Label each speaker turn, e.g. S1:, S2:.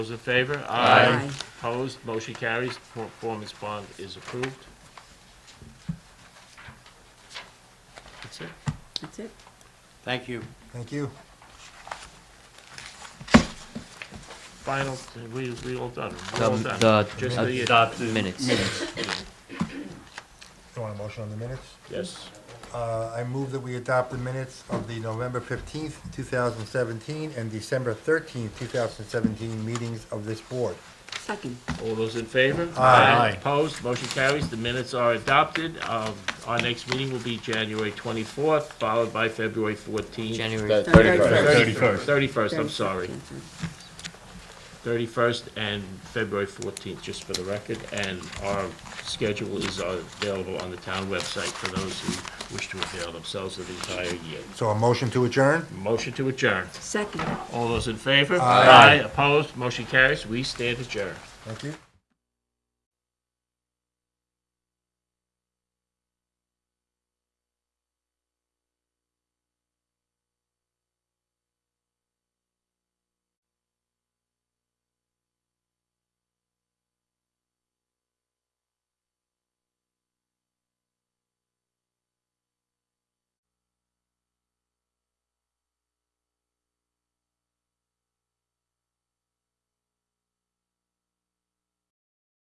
S1: Those in favor?
S2: Aye.
S1: Opposed, motion carries, performance bond is approved. That's it.
S2: That's it.
S3: Thank you.
S4: Thank you.
S1: Final, we, we all done, we're
S5: The,
S1: all done. Just the-
S5: the adopt minutes.
S4: You want a motion on the minutes?
S1: Yes,
S4: Uh, I move that we adopt the minutes of the November fifteenth, two thousand seventeen, and December thirteenth, two thousand seventeen meetings of this board.
S2: Second.
S1: all those in favor?
S4: Aye.
S1: Opposed, motion carries, the minutes are adopted. Um, Our next meeting will be January 24th, followed by February 14th.
S5: January
S1: Thirty-first. Thirty-first, I'm sorry. Thirty-first and February fourteenth, just for the record, and our schedule is uh, available on the town website for those who wish to avail themselves of the entire year.
S4: So a motion to adjourn?
S1: Motion to adjourn.
S2: Second.
S1: All those in favor?
S4: Aye.
S1: Opposed? Motion carries. We stand adjourned.
S4: Thank you.